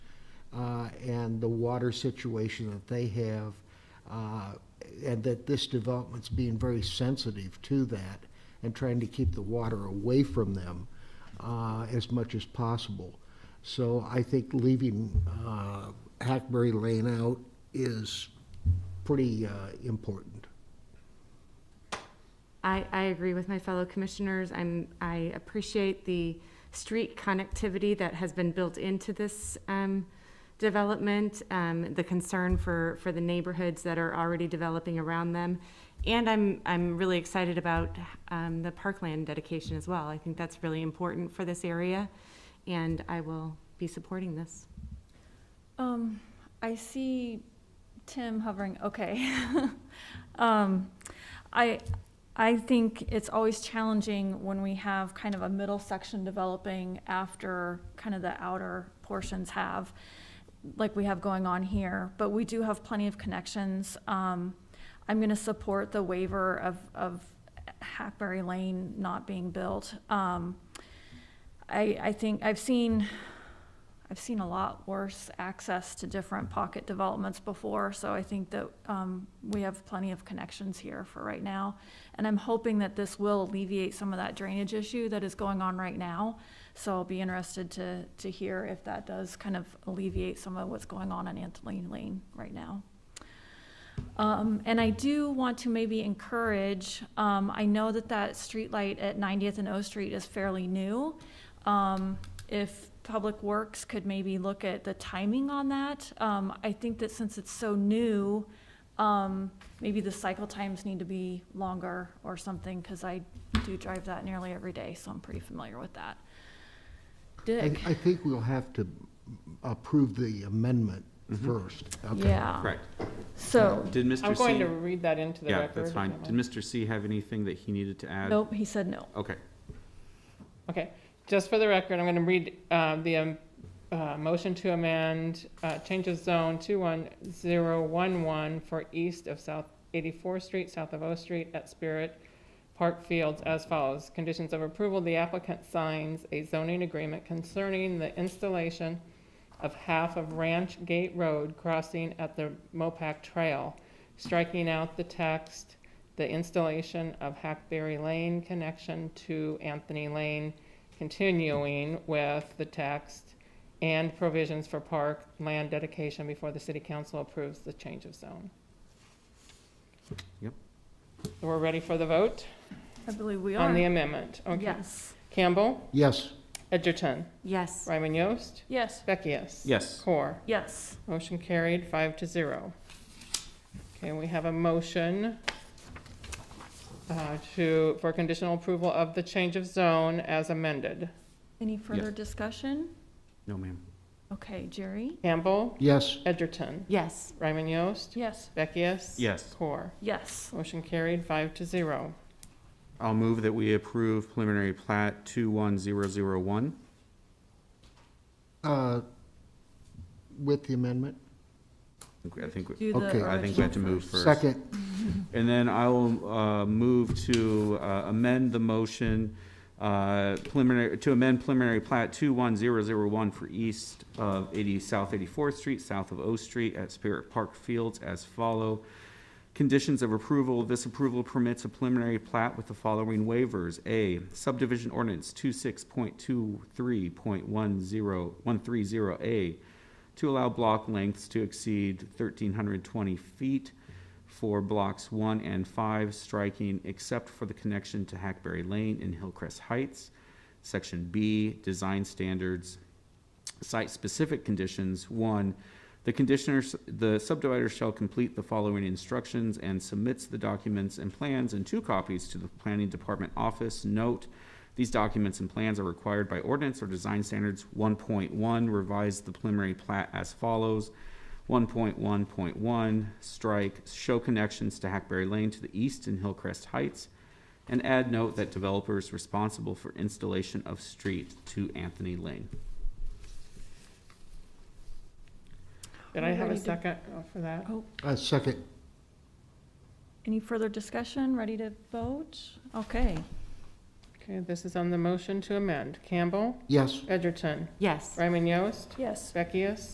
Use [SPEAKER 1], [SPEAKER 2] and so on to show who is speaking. [SPEAKER 1] uh, and the water situation that they have, uh, and that this development's being very sensitive to that and trying to keep the water away from them uh, as much as possible. So I think leaving uh, Hackberry Lane out is pretty uh, important.
[SPEAKER 2] I, I agree with my fellow commissioners. I'm, I appreciate the street connectivity that has been built into this, um, development, um, the concern for, for the neighborhoods that are already developing around them. And I'm, I'm really excited about, um, the parkland dedication as well. I think that's really important for this area, and I will be supporting this.
[SPEAKER 3] Um, I see Tim hovering, okay. Um, I, I think it's always challenging when we have kind of a middle section developing after kind of the outer portions have, like we have going on here, but we do have plenty of connections. Um, I'm gonna support the waiver of, of Hackberry Lane not being built. Um, I, I think, I've seen, I've seen a lot worse access to different pocket developments before, so I think that um, we have plenty of connections here for right now. And I'm hoping that this will alleviate some of that drainage issue that is going on right now. So I'll be interested to, to hear if that does kind of alleviate some of what's going on in Anthony Lane right now. Um, and I do want to maybe encourage, um, I know that that streetlight at 90th and O Street is fairly new. Um, if Public Works could maybe look at the timing on that, um, I think that since it's so new, um, maybe the cycle times need to be longer or something, because I do drive that nearly every day, so I'm pretty familiar with that.
[SPEAKER 1] I,
[SPEAKER 3] Dick?
[SPEAKER 1] I think we'll have to approve the amendment first. Okay.
[SPEAKER 3] Yeah,
[SPEAKER 4] Correct.
[SPEAKER 3] so,
[SPEAKER 4] Did
[SPEAKER 5] I'm
[SPEAKER 4] Mr.
[SPEAKER 5] going to
[SPEAKER 4] C,
[SPEAKER 5] read that into the
[SPEAKER 4] yeah,
[SPEAKER 5] record.
[SPEAKER 4] that's
[SPEAKER 5] if
[SPEAKER 4] fine.
[SPEAKER 5] you
[SPEAKER 4] Did
[SPEAKER 5] mind.
[SPEAKER 4] Mr. C have anything that he needed to add?
[SPEAKER 3] nope, he said no.
[SPEAKER 4] Okay,
[SPEAKER 5] Okay, just for the record, I'm going to read uh, the um, uh, motion to amend, uh, change of zone 21011 for east of South 84th Street, south of O Street at Spirit Park Fields as follows. Conditions of approval, the applicant signs a zoning agreement concerning the installation of half of Ranch Gate Road crossing at the Mopac Trail, striking out the text, the installation of Hackberry Lane connection to Anthony Lane, continuing with the text, and provisions for park land dedication before the city council approves the change of zone.
[SPEAKER 4] Yep.
[SPEAKER 5] So We're ready for the vote
[SPEAKER 3] I believe we
[SPEAKER 5] on the
[SPEAKER 3] are.
[SPEAKER 5] amendment. Okay.
[SPEAKER 3] Yes,
[SPEAKER 5] Campbell,
[SPEAKER 1] Yes,
[SPEAKER 5] Edgerton,
[SPEAKER 2] Yes,
[SPEAKER 5] Ryman Yost,
[SPEAKER 3] yes,
[SPEAKER 5] Beckius.
[SPEAKER 4] yes.
[SPEAKER 5] Core.
[SPEAKER 3] yes.
[SPEAKER 5] Motion carried, five to zero. Okay, we have a motion uh, to, for conditional approval of the change of zone as amended.
[SPEAKER 3] Any further discussion?
[SPEAKER 4] No, ma'am.
[SPEAKER 3] Okay, Jerry?
[SPEAKER 5] Campbell,
[SPEAKER 1] yes,
[SPEAKER 5] Edgerton,
[SPEAKER 2] yes,
[SPEAKER 5] Ryman Yost,
[SPEAKER 3] Yes.
[SPEAKER 5] Beckius.
[SPEAKER 4] Yes.
[SPEAKER 5] Core.
[SPEAKER 3] Yes.
[SPEAKER 5] Motion carried, five to zero.
[SPEAKER 4] I'll move that we approve preliminary plat 21001.
[SPEAKER 1] uh, with the amendment.
[SPEAKER 4] Okay, I think, we-
[SPEAKER 3] Do the
[SPEAKER 1] Okay.
[SPEAKER 4] I think we have to
[SPEAKER 3] original
[SPEAKER 4] move
[SPEAKER 3] first.
[SPEAKER 4] first.
[SPEAKER 1] Second,
[SPEAKER 4] And then I'll uh, move to uh, amend the motion, uh, preliminary, to amend preliminary plat 21001 for east of 80, South 84th Street, south of O Street at Spirit Park Fields as follow. Conditions of approval, this approval permits a preliminary plat with the following waivers. A, subdivision ordinance 26.23.10130A to allow block lengths to exceed 1,320 feet for blocks one and five, striking except for the connection to Hackberry Lane in Hillcrest Heights. Section B, design standards, site-specific conditions. One, the conditioner, the subdivider shall complete the following instructions and submits the documents and plans in two copies to the planning department office. Note, these documents and plans are required by ordinance or design standards. One point one, revise the preliminary plat as follows. One point one point one, strike, show connections to Hackberry Lane to the east and Hillcrest Heights. And add note that developers responsible for installation of street to Anthony Lane.
[SPEAKER 5] Did I have
[SPEAKER 3] Ready
[SPEAKER 5] a
[SPEAKER 3] to-
[SPEAKER 5] second uh, for that?
[SPEAKER 3] Oh,
[SPEAKER 1] uh, second,
[SPEAKER 3] any further discussion? Ready to vote? Okay.
[SPEAKER 5] Okay, this is on the motion to amend. Campbell,
[SPEAKER 1] yes.
[SPEAKER 5] Edgerton,
[SPEAKER 2] yes.
[SPEAKER 5] Ryman Yost,
[SPEAKER 3] Yes.
[SPEAKER 5] Beckius.